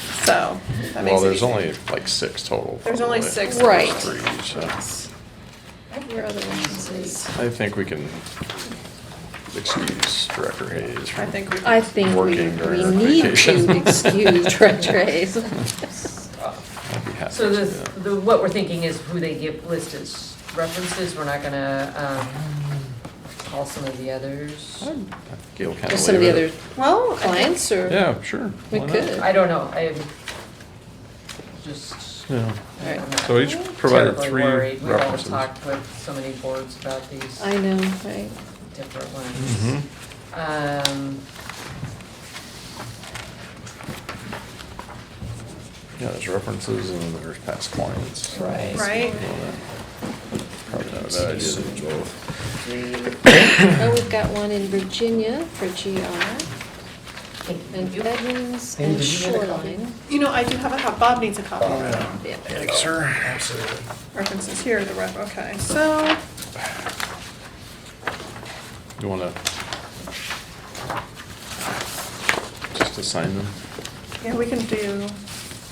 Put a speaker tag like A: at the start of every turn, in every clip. A: so. that makes
B: Well,
A: it
B: there's
A: easy.
B: only like six total.
A: There's only
B: probably.
A: six.
C: Right.
B: Three, so
C: Where are the references?
B: I think we can excuse Director Hayes.
A: I think we.
C: I think we,
B: Working during
C: we
B: her
C: need
B: vacation.
C: to excuse Treacher Hayes.
B: I'd be happy
D: So
B: to
D: the,
B: do that.
D: the, what we're thinking is who they give listed references, we're not gonna, um, call some of the others.
B: I'd- Gail kind of.
C: Just some of the other
A: Well,
C: clients or?
B: Yeah, sure.
C: We
B: why not?
C: could.
D: I don't know, I'm just.
B: Yeah.
C: All
D: I'm
C: right.
D: not
B: So each provided
D: terribly
B: three
D: worried. We've all
B: references.
D: talked with so many boards about these
C: I know, right?
D: different
B: Mhm.
D: ones. Um,
B: Yeah, there's references and then there's past clients.
C: Right.
A: Right.
B: Probably not a bad idea to do both.
C: Oh, we've got one in Virginia for GR and Edmonds
E: Amy,
C: and
E: did you get a
C: Shoreline.
A: you know, I do have a, co- Bob needs a copy.
C: Yeah.
B: Thanks, sir.
E: Absolutely.
A: References here, the ref, okay, so,
B: You wanna? Just assign them?
A: yeah, we can do,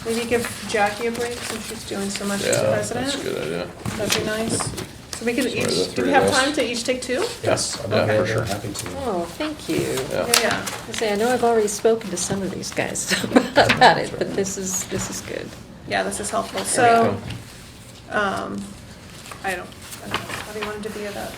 A: maybe give Jackie a break since she's doing so much as
B: Yeah,
A: president.
B: that's a good idea.
A: That'd be nice. So we could
B: Sorry, the
A: each, do
B: three
A: we have
B: of us.
A: time to each take two?
B: Yes,
E: I'm
B: yeah,
E: okay,
B: for
E: yeah,
B: sure.
E: Happy to.
C: Oh, thank you.
B: Yeah.
A: Yeah, yeah.
C: I say, I know I've already spoken to some of these guys about it, but this is, this is good.
A: Yeah, this is helpful,
B: There we
A: so, um, I don't, I don't know, how do you want to be that?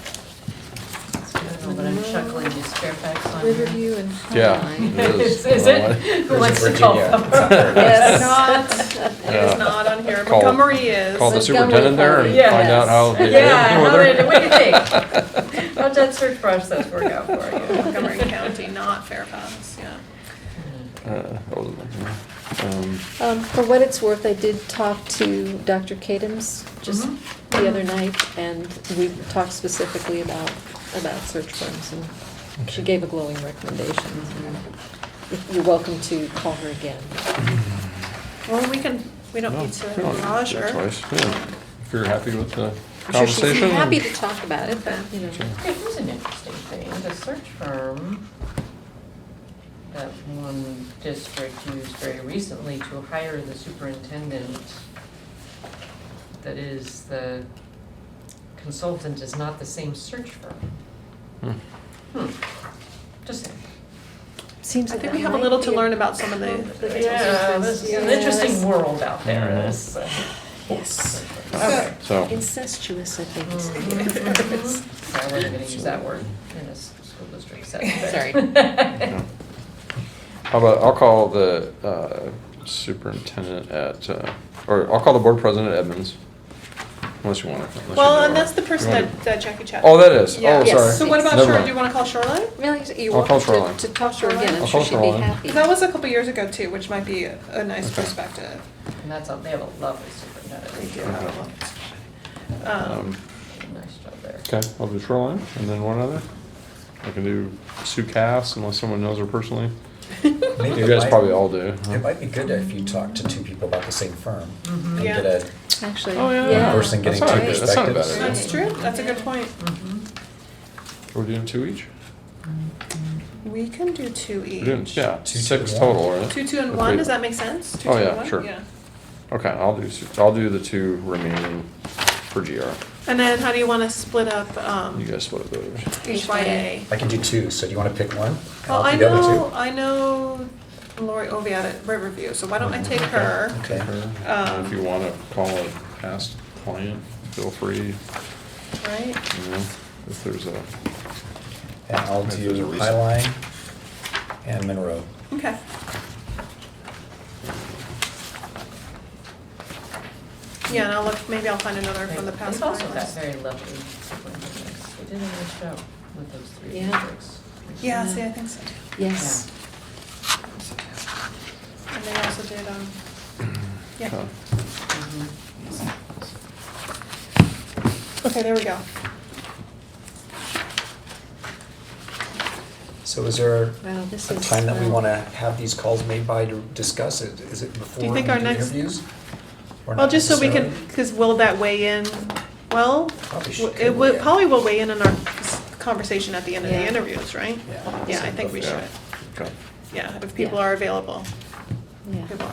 D: I don't know, but I'm chuckling, is Fairfax on here?
C: Riverview and
B: Yeah.
C: Highline.
D: Is is it? Who
E: There's
D: wants
E: a
D: to call
E: Virginia.
D: them?
A: It's
C: Yes.
A: not, it
B: Yeah.
A: is not on here,
B: Call-
A: Montgomery is.
B: Call the
C: Montgomery
B: superintendent there and
D: County.
B: find out how they did.
D: Yeah, how
B: whether-
D: did, what do you think? How'd that search process work out for you?
A: Montgomery County, not Fairfax, yeah.
B: Uh, that wasn't like, um,
C: Um, for what it's worth, I did talk to Dr. Cadams just
D: Mhm.
A: Mm-hmm.
C: the other night, and we talked specifically about, about search firms, and she gave a glowing recommendation. and You're welcome to call her again.
A: Well, we can, we don't
B: no,
A: need to
B: we don't need to
A: garage
B: do
A: her.
B: it twice, yeah. If you're happy with the
C: I'm sure she'd be
B: conversation.
C: happy to talk about it, but, you know.
B: Sure.
D: Okay, here's an interesting thing, the search firm that one district used very recently to hire the superintendent that is the consultant is not the same search firm.
B: Hmm.
D: Hmm, just saying.
C: Seems
A: I
C: that
A: think
C: that
A: we have a
C: might
A: little
C: be
A: to learn about some of the.
C: conflict.
D: Yeah, this is an
C: Yeah,
D: interesting
C: that's-
D: world out there, this, uh,
C: Yes,
D: okay.
B: So,
C: incestuous, I think. it's-
A: Mm-hmm.
D: Sorry, I wasn't gonna use that word in a s- school district setting. but-
C: Sorry.
B: yeah. how about, I'll call the uh, superintendent at, uh, or I'll call the board president at Edmonds. Unless you want to.
A: Well, and that's the person that that Jackie chatted.
B: Oh, that
A: with.
B: is.
A: Yeah.
B: Oh,
C: Yes.
B: sorry.
A: So what about
B: Never
A: Shoreline,
B: mind.
A: do you wanna call Shoreline?
C: Really, you're
B: I'll call
C: welcome
B: Shoreline.
C: to, to talk to her again, I'm
B: I'll
C: sure
B: call
C: she'd be
B: Shoreline.
C: happy.
A: That was a couple years ago too, which might be a nice
B: Okay.
A: perspective.
D: And that's, all- they have a lovely superintendent,
A: They
D: they
A: do
D: do
A: have a lot. Um,
B: Um,
D: a nice job there.
B: Okay, I'll do shoreline and then one other. I can do Sue Cass unless someone knows her personally. Um,
E: Maybe
B: You
E: it
B: guys
E: might-
B: probably all do. huh?
E: It might be good if you talk to two people about the same firm and
A: Mm-hmm. Yeah.
E: get a,
C: Actually,
B: Oh, yeah.
C: yeah.
E: Person
B: That's not
E: getting two
B: a good- That's not a bad
E: perspectives.
B: idea.
A: That's true, that's a good point.
B: Are we doing two each?
A: We can do two
B: We're doing,
A: each.
B: yeah,
E: Two,
B: six
E: two,
B: total, right?
A: Two, two
B: If
A: and
B: we-
A: one, does that make sense? Two,
B: Oh,
A: two, and
B: yeah,
A: one?
B: sure. Okay, I'll do, Sue- I'll do the two remaining for GR.
A: And then how do you wanna split up, um,
B: You guys split those.
A: HYA?
E: I can do two, so do you want to pick one? and
A: Well,
E: I'll
A: I
E: do the other
A: know,
E: two?
A: I know Lori Oviatt at Riverview, so why don't I take her?
E: Okay.
A: Um,
B: And If you want to call a past client, feel free,
A: Right?
B: you know, if there's a,
E: And I'll
B: If there's a
E: do
B: reason.
E: Highline and Monroe.
A: Okay. Yeah, and I'll look, maybe I'll find another from the
D: They've
A: past.
D: also got
A: clients.
D: very lovely superintendents. They did a nice job with those three
C: Yeah.
D: districts.
A: Yeah,
E: Mm-hmm.
A: see, I think so too.
C: Yes.
A: And they also did, um, yeah.
B: Okay.
D: Mhm.
A: Okay, there we go.
E: So is there
C: Wow, this
E: a
C: is,
E: time that we
C: um,
E: want to have these calls made by to discuss it? Is it before we
A: think
E: do
A: our next-
E: interviews? Or
A: Well,
E: not
A: just so we can,
E: necessarily?
A: because will that weigh in, well,
E: Probably should-
A: w-
E: could
A: it would,
E: weigh in.
A: probably will weigh in in our conversation at the end of the
C: Yeah.
A: interviews, right?
E: Yeah.
A: Yeah, I think we
B: Yeah.
A: should,
B: Okay.
A: yeah, if people
C: Yeah.
A: are available.
C: Yeah.
A: People are